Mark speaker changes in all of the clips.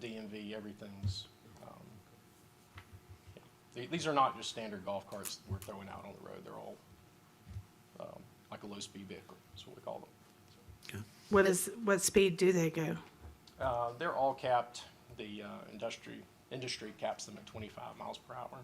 Speaker 1: safety, everything's, um, yeah. The- These are not just standard golf carts that we're throwing out on the road, they're all, um, like a low-speed vehicle, is what we call them.
Speaker 2: What is, what speed do they go?
Speaker 1: Uh, they're all capped, the, uh, industry, industry caps them at twenty-five miles per hour.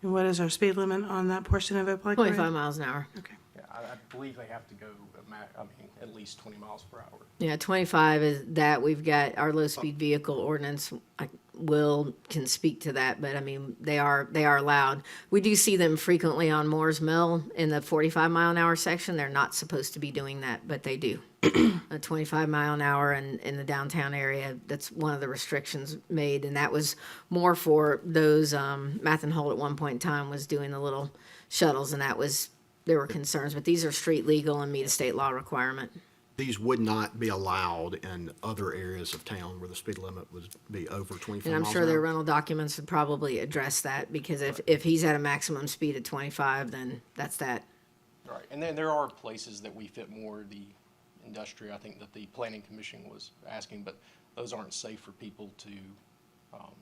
Speaker 2: And what is our speed limit on that portion of Oak Lake Road?
Speaker 3: Twenty-five miles an hour.
Speaker 2: Okay.
Speaker 1: Yeah, I, I believe they have to go, a ma- I mean, at least twenty miles per hour.
Speaker 3: Yeah, twenty-five is that. We've got our low-speed vehicle ordinance. I Will can speak to that, but I mean, they are, they are allowed. We do see them frequently on Moore's Mill in the forty-five mile an hour section. They're not supposed to be doing that, but they do. A twenty-five mile an hour in, in the downtown area, that's one of the restrictions made, and that was more for those, um, Math and Holt at one point in time was doing the little shuttles, and that was, there were concerns, but these are street legal and meet a state law requirement.
Speaker 4: These would not be allowed in other areas of town where the speed limit would be over twenty-five
Speaker 3: And I'm
Speaker 4: miles
Speaker 3: sure
Speaker 4: an
Speaker 3: their
Speaker 4: hour.
Speaker 3: rental documents would probably address that, because if, if he's at a maximum speed of twenty-five, then that's that.
Speaker 1: Right, and then there are places that we fit more the industry, I think that the planning commission was asking, but those aren't safe for people to, um,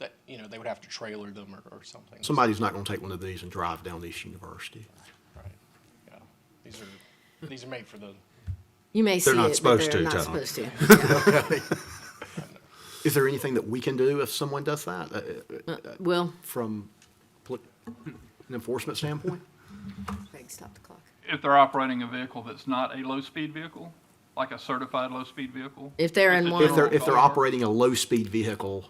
Speaker 1: that, you know, they would have to trailer them or, or something.
Speaker 4: Somebody's not gonna take one of these and drive down East University.
Speaker 1: Right, yeah, these are, these are made for the,
Speaker 3: You may see
Speaker 4: They're not
Speaker 3: it, but
Speaker 4: supposed
Speaker 3: they're
Speaker 4: to,
Speaker 3: not
Speaker 4: Tom.
Speaker 3: supposed to.
Speaker 4: Is there anything that we can do if someone does that, uh, uh,
Speaker 3: Will,
Speaker 4: from poli- an enforcement standpoint?
Speaker 3: Craig, stop the clock.
Speaker 5: if they're operating a vehicle that's not a low-speed vehicle, like a certified low-speed vehicle.
Speaker 3: If they're in
Speaker 5: a
Speaker 3: one-
Speaker 4: If they're, if
Speaker 5: general
Speaker 4: they're
Speaker 5: car,
Speaker 4: operating a low-speed vehicle,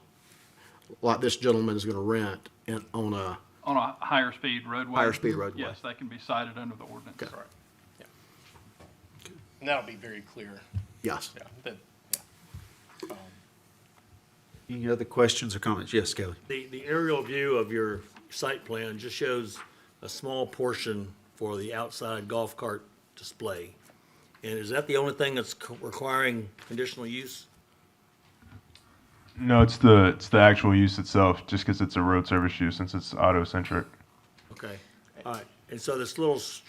Speaker 4: like this gentleman is gonna rent in, on a,
Speaker 5: On a higher speed roadway.
Speaker 4: Higher speed roadway.
Speaker 5: Yes, they can be cited under the ordinance.
Speaker 4: Okay.
Speaker 1: yeah. And that'll be very clear,
Speaker 4: yes.
Speaker 1: yeah, that, yeah.
Speaker 6: Any other questions or comments? Yes, Kelly.
Speaker 7: The, the aerial view of your site plan just shows a small portion for the outside golf cart display. And is that the only thing that's co- requiring conditional use?
Speaker 8: No, it's the it's the actual use itself, just because it's a road service use, since it's auto centric.
Speaker 7: Okay, all right. And so this little s-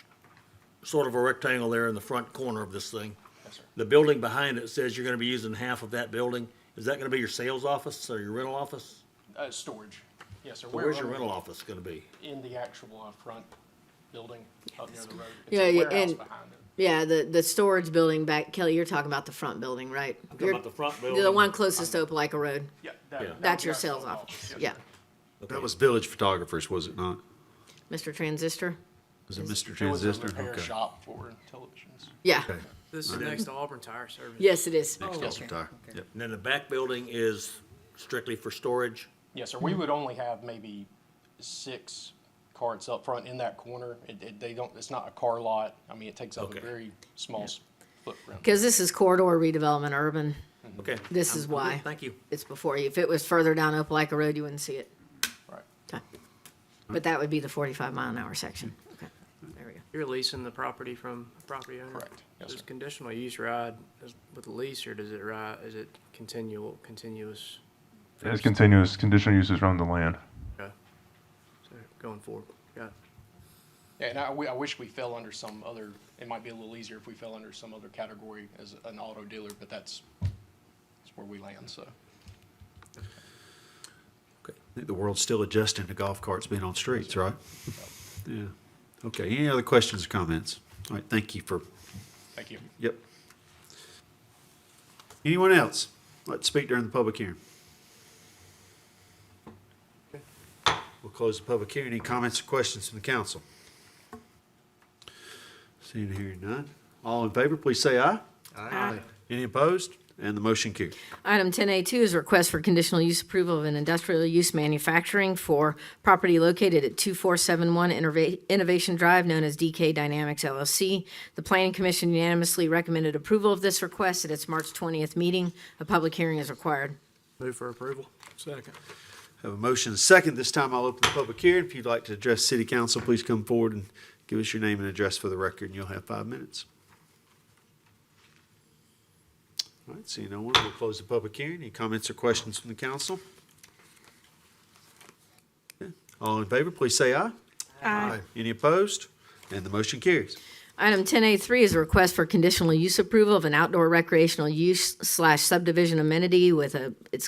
Speaker 7: sort of a rectangle there in the front corner of this thing.
Speaker 1: Yes, sir.
Speaker 7: The building behind it says you're gonna be using half of that building. Is that gonna be your sales office or your rental office?
Speaker 1: Uh, storage, yes, sir.
Speaker 7: Or Where's your rental office gonna be?
Speaker 1: In the actual, uh, front building up near the road. It's a
Speaker 3: Yeah, yeah,
Speaker 1: warehouse
Speaker 3: and-
Speaker 1: behind it.
Speaker 3: Yeah, the, the storage building back, Kelly, you're talking about the front building, right?
Speaker 7: Talking about the front building?
Speaker 3: The one closest to Opelika Road.
Speaker 1: Yeah, that-
Speaker 7: Yeah.
Speaker 1: that would
Speaker 3: That's
Speaker 1: be
Speaker 3: your
Speaker 1: our
Speaker 3: sales office,
Speaker 1: yes,
Speaker 3: yeah.
Speaker 1: sir.
Speaker 6: That was Village Photographers, was it not?
Speaker 3: Mr. Transistor?
Speaker 6: Was it
Speaker 1: It
Speaker 6: Mr.
Speaker 1: was a
Speaker 6: Transistor?
Speaker 1: repair
Speaker 6: Okay.
Speaker 1: shop for televisions.
Speaker 3: Yeah,
Speaker 6: Okay.
Speaker 9: This is next to Auburn Tire Service.
Speaker 3: yes, it is. Oh,
Speaker 1: Oh,
Speaker 6: Yes, retire. Yep.
Speaker 7: And then the back building is strictly for storage?
Speaker 1: Yes, sir. We would only have maybe six carts up front in that corner. It, it, they don't, it's not a car lot. I mean, it takes up a
Speaker 7: Okay.
Speaker 1: very small s- footprint.
Speaker 3: Because this is corridor redevelopment urban.
Speaker 1: Mm-hmm.
Speaker 7: Okay.
Speaker 3: This
Speaker 7: I'm-
Speaker 3: is
Speaker 7: I'm good.
Speaker 3: why.
Speaker 7: Thank you.
Speaker 3: It's before you. If it was further down Opelika Road, you wouldn't see it.
Speaker 1: Right.
Speaker 3: Okay. But that would be the forty-five mile an hour section. Okay, there we go.
Speaker 9: You're leasing the property from a property owner?
Speaker 1: Correct. Yes,
Speaker 9: Does
Speaker 1: sir.
Speaker 9: conditional use ride as- with the lease, or does it ride, is it continual, continuous?
Speaker 8: It's continuous conditional uses around the land.
Speaker 9: Okay. So going forward, got it.
Speaker 1: Yeah, and I, we, I wish we fell under some other, it might be a little easier if we fell under some other category as an auto dealer, but that's, that's where we land, so.
Speaker 6: I think the world's still adjusting to golf carts being on streets, right? Yeah. Okay, any other questions or comments? All right, thank you for,
Speaker 1: Thank you.
Speaker 6: yep. Anyone else? Let's speak during the public hearing. We'll close the public hearing. Any comments or questions from the council? Seeing and hearing none. All in favor, please say aye. Aye. Any opposed? And the motion carried.
Speaker 3: Item ten A two is a request for conditional use approval of an industrial use manufacturing for property located at two four seven one Innovation Drive, known as DK Dynamics LLC. The planning commission unanimously recommended approval of this request at its March twentieth meeting. A public hearing is required.
Speaker 9: Move for approval?
Speaker 6: Have a motion and a second. This time I'll open the public hearing. If you'd like to address city council, please come forward and give us your name and address for the record, and you'll have five minutes. All right, seeing no one, we'll close the public hearing. Any comments or questions from the council? Okay. All in favor, please say aye. Aye. Any opposed? And the motion carries.
Speaker 3: Item ten A three is a request for conditional use approval of an outdoor recreational use slash subdivision amenity with a, it's